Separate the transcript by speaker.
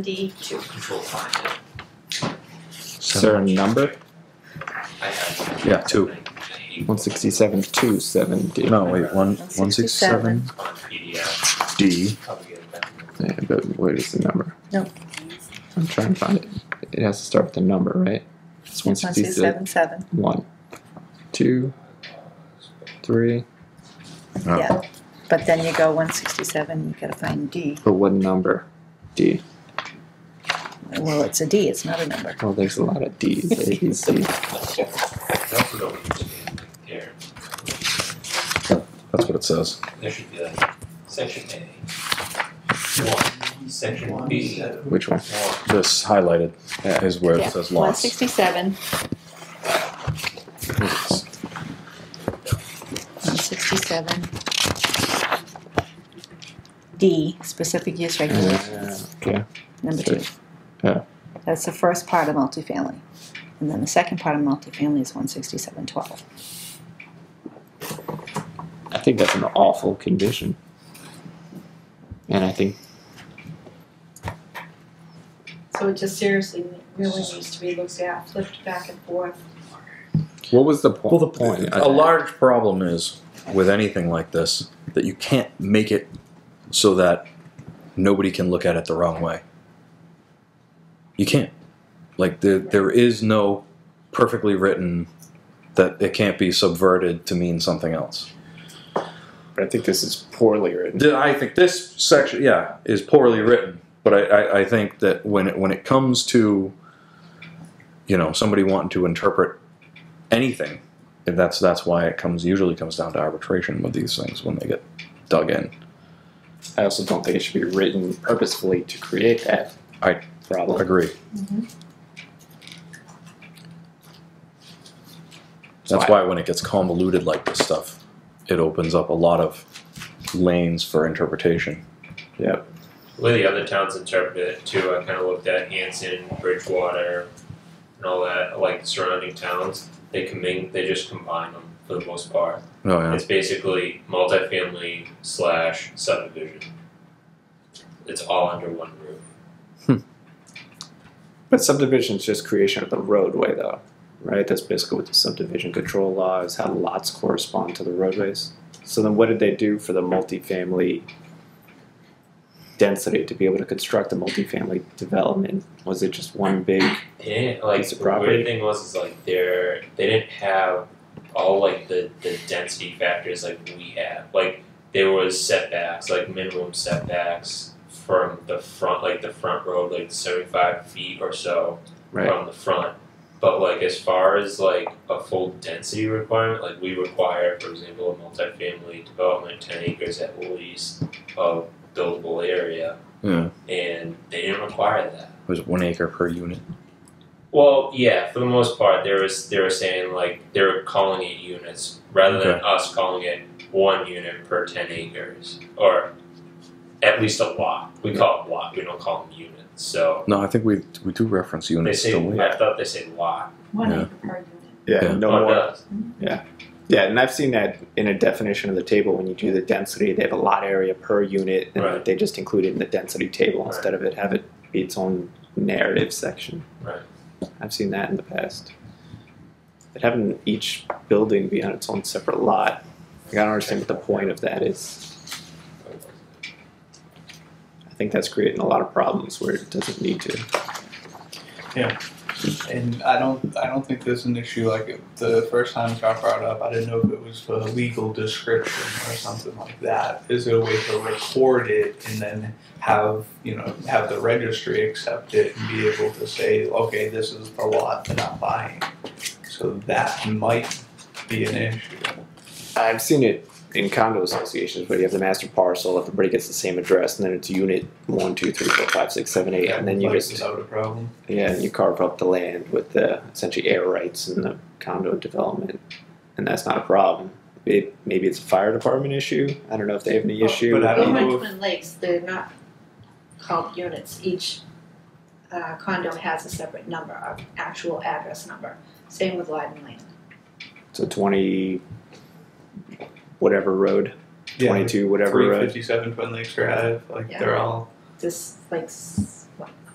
Speaker 1: D two.
Speaker 2: We'll find it.
Speaker 3: Is there a number?
Speaker 2: I have.
Speaker 3: Yeah, two.
Speaker 4: One sixty-seven, two seventy.
Speaker 3: No, wait, one, one six seven
Speaker 1: 167.
Speaker 2: On PDF,
Speaker 3: D.
Speaker 2: probably get it back.
Speaker 4: Yeah, but what is the number?
Speaker 1: No.
Speaker 4: I'm trying to find it. It has to start with a number, right? It's one
Speaker 1: One six
Speaker 4: sixty-six.
Speaker 1: seven seven.
Speaker 4: One, two, three.
Speaker 3: Oh.
Speaker 1: Yeah. But then you go one sixty seven, you gotta find D.
Speaker 4: But what number? D.
Speaker 1: Well, it's a D, it's not a number.
Speaker 4: Well, Oh, there's a lot of D's. A, B, C.
Speaker 2: That's what we need to do right there.
Speaker 3: That's what it says.
Speaker 2: There should be a section A. One, section B. One.
Speaker 4: Which one?
Speaker 3: This highlighted is where it says
Speaker 1: One
Speaker 3: lots.
Speaker 1: sixty seven, one sixty seven. D, specific use regulation,
Speaker 4: Okay.
Speaker 3: Mm-hmm.
Speaker 1: number
Speaker 4: so-
Speaker 1: two.
Speaker 4: yeah.
Speaker 1: That's the first part of multifamily. And then the second part of multifamily is one sixty seven twelve.
Speaker 4: I think that's an awful condition. And I think
Speaker 5: So it just seriously really needs to be looked at, flipped back and forth.
Speaker 4: what was the point?
Speaker 3: Well, the point.
Speaker 4: I-
Speaker 3: A large problem is with anything like this that you can't make it so that nobody can look at it the wrong way. You can't. Like there, there is no perfectly written that it can't be subverted to mean something else.
Speaker 4: I think this is poorly written.
Speaker 3: Th- I think this section, yeah, is poorly written. But I, I, I think that when it, when it comes to, you know, somebody wanting to interpret anything, and that's that's why it comes usually comes down to arbitration with these things when they get dug in.
Speaker 4: I also don't think it should be written purposefully to create that
Speaker 3: I-
Speaker 4: problem.
Speaker 3: Agree. mm-hmm. That's why when it gets convoluted like this stuff, it opens up a lot of lanes for interpretation.
Speaker 4: Yep.
Speaker 6: The way the other towns interpret it too, I kind of looked at Hanson, Bridgewater, and all that, like surrounding towns. They commin- they just combine them for the most part.
Speaker 3: Oh yeah.
Speaker 6: It's basically multifamily slash subdivision. It's all under one roof.
Speaker 4: But subdivision is just creation of the roadway, though, right? That's basically what the subdivision control law is how lots correspond to the roadways. So then, what did they do for the multifamily density to be able to construct a multifamily development? Was it just one big?
Speaker 6: They didn't like
Speaker 4: Piece
Speaker 6: the
Speaker 4: of property.
Speaker 6: weird thing was is like they're they didn't have all like the the density factors like we have. Like there was setbacks, like minimum setbacks from the front, like the front road, like seventy five feet or so
Speaker 4: Right.
Speaker 6: from the front. But like as far as like a full density requirement, like we require, for example, a multifamily development, ten acres at least of buildable area,
Speaker 3: yeah.
Speaker 6: and they didn't require that.
Speaker 3: It was one acre per unit.
Speaker 6: Well, yeah, for the most part, they were they were saying like they were calling it units rather than
Speaker 3: Okay.
Speaker 6: us calling it one unit per ten acres or at least a lot. We call it lot. We don't call them units. So
Speaker 3: No, I think we we do reference
Speaker 6: they
Speaker 3: units.
Speaker 6: say
Speaker 3: don't we?
Speaker 6: I thought they say lot.
Speaker 5: One
Speaker 3: Yeah.
Speaker 5: acre per unit.
Speaker 4: Yeah,
Speaker 3: Yeah.
Speaker 4: No
Speaker 6: Oh, it
Speaker 4: more.
Speaker 6: does.
Speaker 4: Yeah, and I've seen that in a definition of the table when you do the density, they have a lot area per unit, and
Speaker 6: Right.
Speaker 4: they just include it in the density table
Speaker 6: Right.
Speaker 4: instead of it have it be its own narrative section.
Speaker 6: Right.
Speaker 4: I've seen that in the past. But having each building be on its own separate lot, like, I don't understand what the point of that is. I think that's creating a lot of problems where it doesn't need to.
Speaker 7: And I don't, I don't think there's an issue like it, the first time it got brought up. I didn't know if it was for legal description or something like that. Is there a way to record it and then have you know have the registry accept it and be able to say, okay, this is the lot that I'm buying. So that might be an issue.
Speaker 4: I've seen it in condo associations where you have the master parcel, everybody gets the same address, and then it's unit one, two, three, four, five, six, seven, eight, and then you
Speaker 7: Like,
Speaker 4: just
Speaker 7: without a problem.
Speaker 4: Yeah, and you carve up the land with the essentially air rights and the condo development, and that's not a problem. It, maybe it's a fire department issue. I don't know if they have any
Speaker 7: Oh,
Speaker 4: issue.
Speaker 7: but I don't
Speaker 5: Even
Speaker 7: know if-
Speaker 5: Twin Lakes, they're not called units. Each uh, condo has a separate number, an actual address number. Same with Lyden Lane.
Speaker 4: so twenty, whatever road,
Speaker 7: Yeah,
Speaker 4: twenty-two, whatever
Speaker 7: Three
Speaker 4: road.
Speaker 7: fifty-seven Twin Lakes Drive, like they're all
Speaker 5: This like s-